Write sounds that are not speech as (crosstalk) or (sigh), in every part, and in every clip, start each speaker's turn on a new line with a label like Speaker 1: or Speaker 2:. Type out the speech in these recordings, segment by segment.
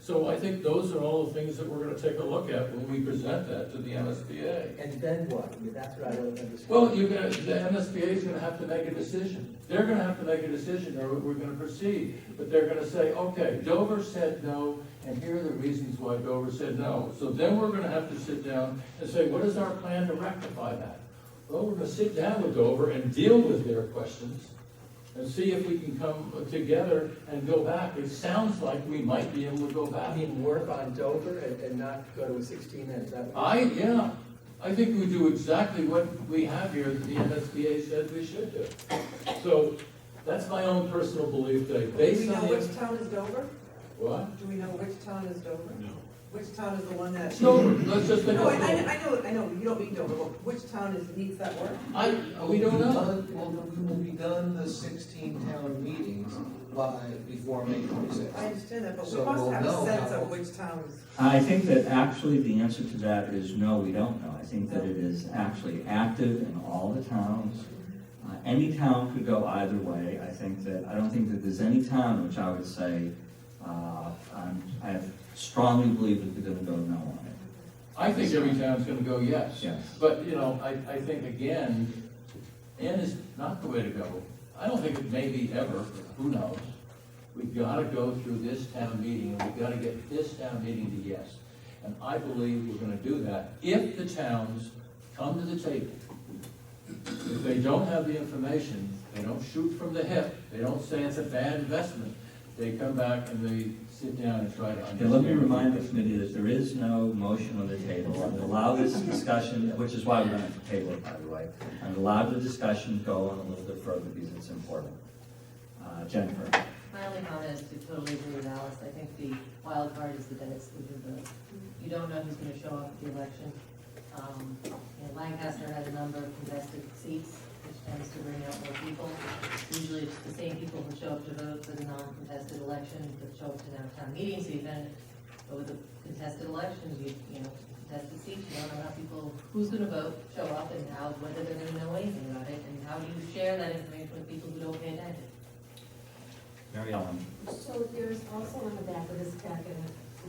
Speaker 1: So I think those are all the things that we're gonna take a look at when we present that to the MSBA.
Speaker 2: And then what? I mean, that's what I don't understand.
Speaker 1: Well, you're gonna, the MSBA is gonna have to make a decision. They're gonna have to make a decision, or we're gonna proceed. But they're gonna say, okay, Dover said no, and here are the reasons why Dover said no. So then we're gonna have to sit down and say, what is our plan to rectify that? Well, we're gonna sit down with Dover and deal with their questions, and see if we can come together and go back. It sounds like we might be able to go
Speaker 2: I
Speaker 1: back.
Speaker 2: mean, work on Dover and, and not go to a sixteen end, is that what?
Speaker 1: I, yeah, I think we do exactly what we have here that the MSBA said we should do. So that's my own personal belief, Dave,
Speaker 3: Do we
Speaker 1: based
Speaker 3: know
Speaker 1: on
Speaker 3: which
Speaker 1: the,
Speaker 3: town is Dover?
Speaker 1: what?
Speaker 3: Do we know which town is Dover? No. Which town is the one that?
Speaker 1: No, let's just think
Speaker 3: No, I, I
Speaker 1: of,
Speaker 3: I know, I know, you don't mean Dover, but which town is, needs that work?
Speaker 1: I, Oh, we don't know.
Speaker 4: Well, we will be done the sixteen town meetings by, before May twenty-sixth.
Speaker 3: I understand that, but we
Speaker 4: So
Speaker 3: must
Speaker 4: we'll
Speaker 3: have a
Speaker 4: know
Speaker 3: sense
Speaker 4: how-
Speaker 3: of which town is.
Speaker 5: I think that actually the answer to that is no, we don't know. I think that it is actually active in all the towns. Uh, Any town could go either way. I think that, I don't think that there's any town which I would say, uh, I'm- I strongly believe that they're going to go no on it.
Speaker 1: I think every town's gonna go yes.
Speaker 5: Yes.
Speaker 1: But, you know, I, I think again, N is not the way to go. I don't think it may be ever, who knows? We've gotta go through this town meeting, and we've gotta get this town meeting to yes. And I believe we're gonna do that if the towns come to the table. If they don't have the information, they don't shoot from the hip, they don't say it's a bad investment, they come back and they sit down and try to
Speaker 5: Okay,
Speaker 1: understand.
Speaker 5: let me remind the committee that there is no motion on the table. And allow this discussion, which is why we're going to table it, by the way. And allow the discussion go on a little bit further because it's important. Uh, Jennifer?
Speaker 6: My only comment is to totally agree with Alice, I think the wild card is the debt exclusion vote. You don't know who's gonna show up at the election. Um, you know, Lancaster had a number of contested seats, which tends to bring out more people. Usually it's the same people who show up to vote for the non-contested election, that show up to now town meetings even. But with the contested elections, you, you know, contested seats, you don't know how people, who's gonna vote, show up, and how, whether they're gonna know anything about it, and how do you share that information with people who don't pay attention?
Speaker 5: Mary Ellen?
Speaker 7: So there's also on the back of this packet,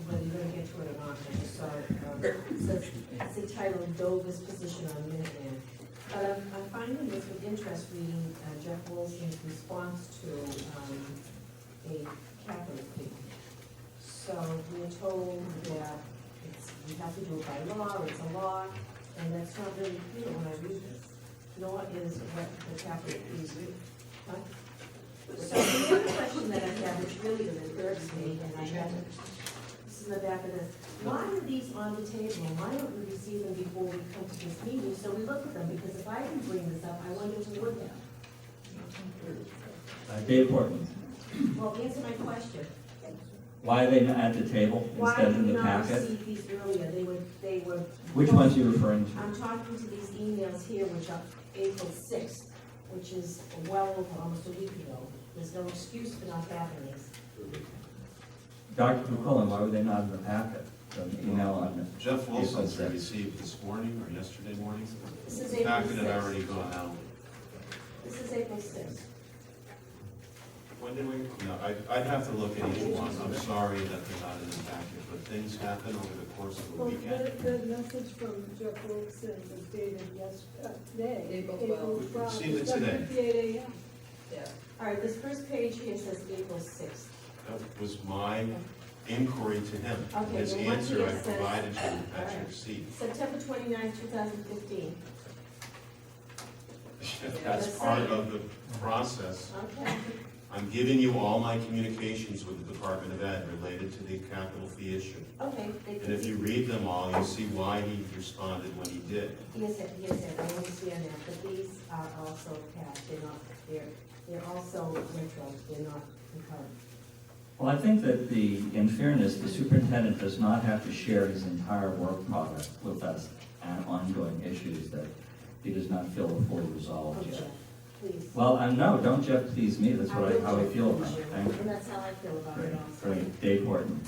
Speaker 7: whether you're gonna get to it or not, I just saw it, um, it says, it's the title of Dover's position on Minuteman. But I'm, I'm finding this with interest reading uh, Jeff Wilson's response to, um, a capital fee. So we're told that it's, we have to do it by law, it's a law, and that's not really clear when I read this, nor is what the capital fee is. Huh? So the other question that I have, which really disturbs me, and I haven't, this is in the back of this, why are these on the table? Why don't we receive them before we come to this meeting, so we look at them? Because if I can bring this up, I wonder who would have.
Speaker 5: Uh, Dave Horton,
Speaker 7: Well, answer my question.
Speaker 5: why are they not at the table
Speaker 7: Why
Speaker 5: instead
Speaker 7: did
Speaker 5: of in
Speaker 7: we
Speaker 5: the
Speaker 7: not
Speaker 5: packet?
Speaker 7: receive these earlier? They were, they were.
Speaker 5: Which ones are you referring to?
Speaker 7: I'm talking to these emails here, which are April sixth, which is well over, almost a week ago. There's no excuse for not having these.
Speaker 5: Dr. McCullen, why were they not in the packet? The email on
Speaker 8: Jeff Wilson's
Speaker 5: Yeah, that's it.
Speaker 8: received this morning or yesterday morning.
Speaker 7: This is
Speaker 8: The Packet had
Speaker 7: April
Speaker 8: already gone out.
Speaker 7: This is April sixth.
Speaker 8: When did we? No, I, I'd have to look at each one. I'm sorry that they're not in the packet, but things happen over the course of the
Speaker 9: Well,
Speaker 8: weekend.
Speaker 9: the, the message from Jeff Wilson was dated uh, yesterday.
Speaker 3: April 12.
Speaker 8: We've seen it today.
Speaker 9: Fifty-eight AM.
Speaker 3: Yeah.
Speaker 7: All right, this first page here says April sixth.
Speaker 8: That was my inquiry to him.
Speaker 7: Okay,
Speaker 8: His
Speaker 7: well, what he
Speaker 8: answer I
Speaker 7: has said-
Speaker 8: provided you at your
Speaker 7: Alright.
Speaker 8: seat. (laughs)
Speaker 7: September twenty-ninth, two thousand fifteen.
Speaker 8: That's
Speaker 7: the
Speaker 8: part
Speaker 7: same.
Speaker 8: of the process.
Speaker 7: Okay,
Speaker 8: I'm giving you all my communications with the Department of Ed related to the capital fee issue.
Speaker 7: okay. they
Speaker 8: And if you read them all, you'll see why he responded when he did.
Speaker 7: Yes, sir, yes, sir, I understand that, but these are also passed, they're not, they're, they're also retro, they're not concurrent.
Speaker 5: Well, I think that the, in fairness, the superintendent does not have to share his entire work product with us on ongoing issues that he does not feel are fully
Speaker 7: Oh,
Speaker 5: resolved
Speaker 7: Jeff,
Speaker 5: yet.
Speaker 7: Please.
Speaker 5: Well, I no, don't Jeff please me, that's what I, how I feel about it. Thank
Speaker 7: And
Speaker 5: you.
Speaker 7: that's how I feel about it
Speaker 5: Great,
Speaker 7: also.
Speaker 5: great. Dave Horton.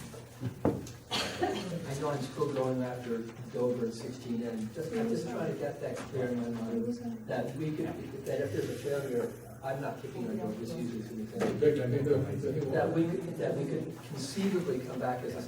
Speaker 2: I know I'm still going after Dover and sixteen end, just, I'm just trying to get that clear in my mind, that we could, that if there's a failure, I'm not picking on Dover, just use it as an example.
Speaker 1: Vic, I think that- I think-
Speaker 2: That we, could- that we could conceivably come back as a